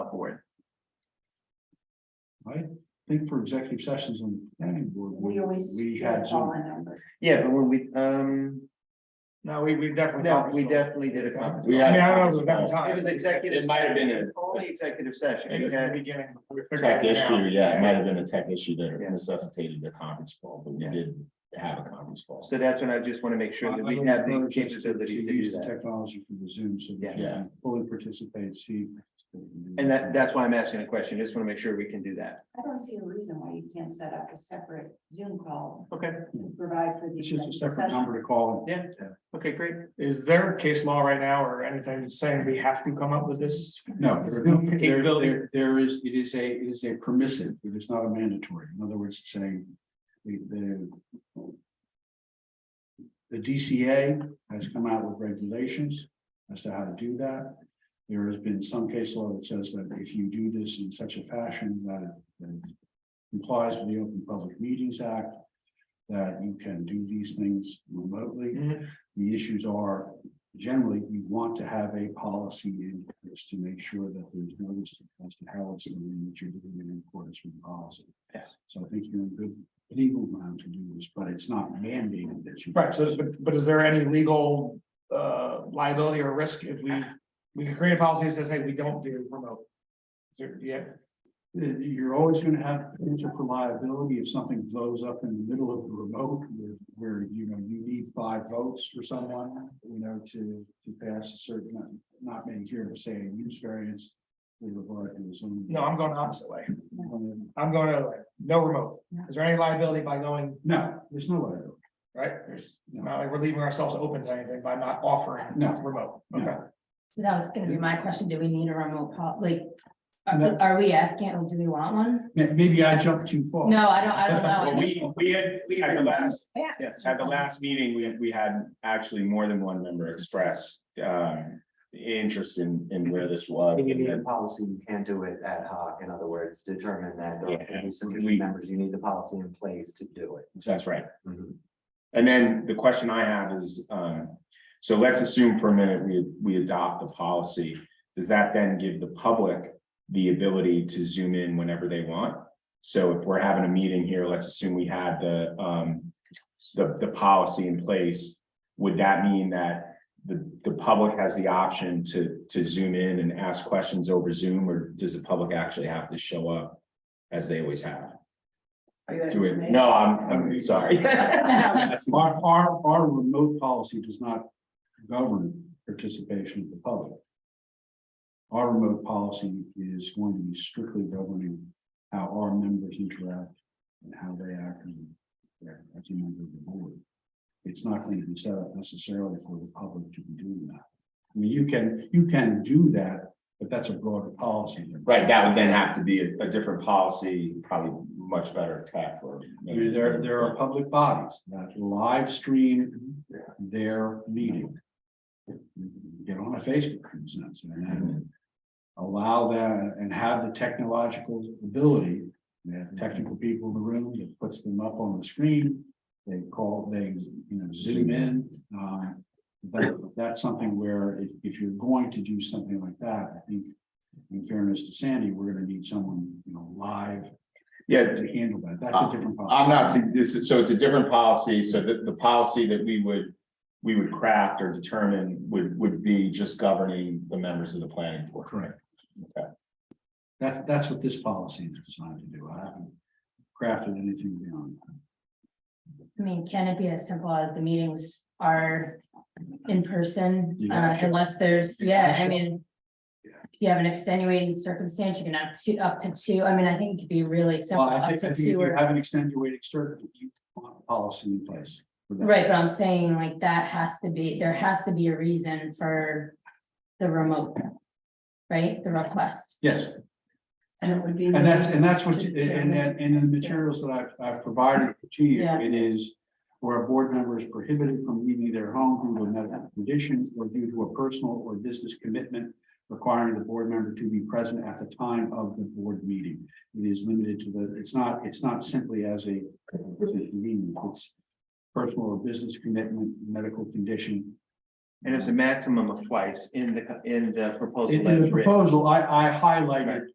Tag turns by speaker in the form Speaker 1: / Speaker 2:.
Speaker 1: board. I think for executive sessions on the planning board.
Speaker 2: We always.
Speaker 1: We had
Speaker 2: Call
Speaker 1: Zoom.
Speaker 2: a number.
Speaker 3: Yeah, but when we, um,
Speaker 4: No, we, we definitely.
Speaker 3: no, we definitely
Speaker 4: definitely.
Speaker 3: did a conference.
Speaker 1: We
Speaker 4: I mean,
Speaker 1: had- uh,
Speaker 4: I don't know, it was about time.
Speaker 3: It was executive.
Speaker 1: It might have been a-
Speaker 3: Only executive session.
Speaker 4: Maybe
Speaker 3: We
Speaker 4: it's the
Speaker 3: had-
Speaker 4: beginning. we figured
Speaker 1: Tech
Speaker 4: it out.
Speaker 1: issue, yeah, it
Speaker 3: Yeah.
Speaker 1: might have been a tech issue that
Speaker 3: Yeah.
Speaker 1: necessitated the conference call, but we
Speaker 3: Yeah.
Speaker 1: did have a conference call.
Speaker 3: So that's when I just want to make sure that we have the capability to do that.
Speaker 1: Technology for the Zoom, so
Speaker 3: that
Speaker 1: we can fully participate, see.
Speaker 3: And that, that's why I'm asking a question. Just want to make sure we can do that.
Speaker 2: I don't see a reason why you can't set up a separate Zoom call.
Speaker 3: Okay.
Speaker 2: to Provide for the.
Speaker 1: It's just a
Speaker 2: executive
Speaker 1: separate
Speaker 2: session.
Speaker 1: number to call.
Speaker 3: Yeah. Okay, great.
Speaker 4: Is there case law right now or anything saying we have to come up with this?
Speaker 1: No, there-
Speaker 4: Zoom
Speaker 1: there,
Speaker 4: capability?
Speaker 1: there- there is, it is a, it is a permissive, it is not a mandatory. In other words, it's saying the, the the DCA has come out with regulations as to how to do that. There has been some case law that says that if you do this in such a fashion that it- that it complies with the Open Public Meetings Act, that you can do these things remotely.
Speaker 4: Mhm.
Speaker 1: The issues are generally, you want to have a policy in place to make sure that there's no mistake as to how it's doing what you're doing in accordance with the policy.
Speaker 3: Yes.
Speaker 1: So I think you're in good legal ground to do this, but it's not mandated that you.
Speaker 4: Right, so, but, but is there any legal, uh, liability or risk if we, we can create a policy that says, hey, we don't do remote? Is there- Yeah,
Speaker 1: You're always gonna have potential for liability if something blows up in the middle of the remote where, where, you know, you need five votes for someone, you know, to, to pass a certain, not- not many here to say a use variance with regard to the zoning.
Speaker 4: no, I'm going the opposite way. I'm going the other way. No remote. Is there any liability by going,
Speaker 1: No, there's no liability.
Speaker 4: right? There's it's not like we're leaving ourselves open to anything by not offering
Speaker 1: No.
Speaker 4: remote.
Speaker 1: No.
Speaker 4: Okay.
Speaker 5: So that was gonna be my question, do we need a remote pol, like,
Speaker 1: No.
Speaker 5: are are we asking, do we want one?
Speaker 1: May- Maybe I jumped too far.
Speaker 5: No, I don't, I don't know.
Speaker 6: Well,
Speaker 5: I think-
Speaker 6: uh, we, we had, we had the last,
Speaker 5: Yeah.
Speaker 6: at the last meeting, we, we had actually more than one member express, um, interest in, in where this was.
Speaker 7: If you need a policy, you can't do it ad hoc. In other words, determine that there are gonna be
Speaker 6: We-
Speaker 7: sufficient members, you need the policy in place to do it.
Speaker 6: That's right.
Speaker 1: Mm-hmm.
Speaker 6: And then the question I have is, um, so let's assume for a minute we, we adopt the policy. Does that then give the public the ability to zoom in whenever they want? So if we're having a meeting here, let's assume we had the, um, the, the policy in place. Would that mean that the, the public has the option to, to zoom in and ask questions over Zoom? Or does the public actually have to show up as they always have?
Speaker 2: Are you gonna-
Speaker 6: Do it, no, I'm, I'm sorry.
Speaker 1: Our, our, our remote policy does not govern participation of the public. Our remote policy is going to be strictly governing how our members interact and how they act and their- as a member of the board. It's not going to be set up necessarily for the public to be doing that. I mean, you can, you can do that, but that's a broader policy.
Speaker 6: Right, that would then have to be a, a different policy, probably much better tech or.
Speaker 1: I mean, there, there are public bodies that live stream their meeting. Get on a Facebook, for instance,
Speaker 6: Mm-hmm.
Speaker 1: and allow that and have the technological ability. They have technical people in the room that puts them up on the screen. They call, they, you know, zoom in. uh, But that's something where if, if you're going to do something like that, I think in fairness to Sandy, we're gonna need someone, you know, live
Speaker 6: Yeah, Uh,
Speaker 1: to handle that. That's a different. policy.
Speaker 6: I'm not, see- this is, so it's a different policy, so the, the policy that we would. We would craft or determine would, would be just governing the members of the planning board.
Speaker 1: Correct.
Speaker 6: Okay.
Speaker 1: That's, that's what this policy is designed to do. I haven't crafted anything beyond. that.
Speaker 5: I mean, can it be as simple as the meetings are in person,
Speaker 1: You
Speaker 5: uh,
Speaker 1: got you.
Speaker 5: unless there's,
Speaker 1: You
Speaker 5: yeah,
Speaker 1: got
Speaker 5: I
Speaker 1: you.
Speaker 5: mean.
Speaker 1: Yeah.
Speaker 5: If you have an extenuating circumstance, you can have two, up to two, I mean, I think it could be really simple,
Speaker 1: Well, I
Speaker 5: up
Speaker 1: think, I
Speaker 5: to
Speaker 1: think if
Speaker 5: two
Speaker 1: you
Speaker 5: or,
Speaker 1: have an extenuating circum, you want a policy in place. for that.
Speaker 5: right, but I'm saying like that has to be, there has to be a reason for the remote. Right, the request.
Speaker 1: Yes,
Speaker 2: And it would be.
Speaker 1: and that's, and that's what, you- and, and, and in the materials that I've, I've provided to you,
Speaker 5: Yeah.
Speaker 1: it is where a board member is prohibited from leaving their home due to a medical condition or due to a personal or business commitment requiring the board member to be present at the time of the board meeting. It is limited to the, it's not, it's not simply as a, as a convenience, it's personal or business commitment, medical condition.
Speaker 3: And it's a maximum of twice in the, in the proposal.
Speaker 1: In in
Speaker 3: as
Speaker 1: the
Speaker 3: written.
Speaker 1: proposal, I, I highlighted